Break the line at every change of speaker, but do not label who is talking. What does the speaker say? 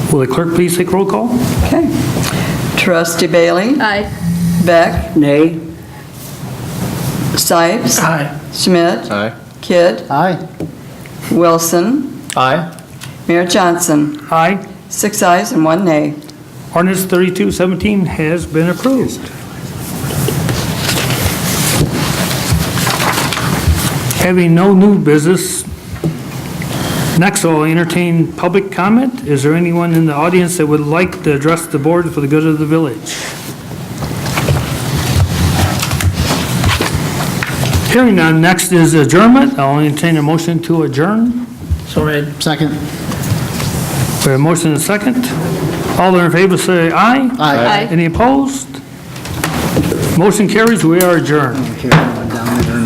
Will the clerk please take roll call?
Okay. Trustee Bailey?
Aye.
Beck?
Nay.
Sipes?
Aye.
Schmidt?
Aye.
Kidd?
Aye.
Wilson?
Aye.
Mayor Johnson?
Aye.
Six ayes and one nay.
Ordinance 3217 has been approved. Having no new business, next I'll entertain public comment. Is there anyone in the audience that would like to address the board for the good of the village? Hearing none, next is adjournment. I'll entertain a motion to adjourn.
Second.
We have a Uh, motion and a second. All in favor, say aye.
Aye.
Aye.
Any opposed? Motion carries, we are adjourned.
Here.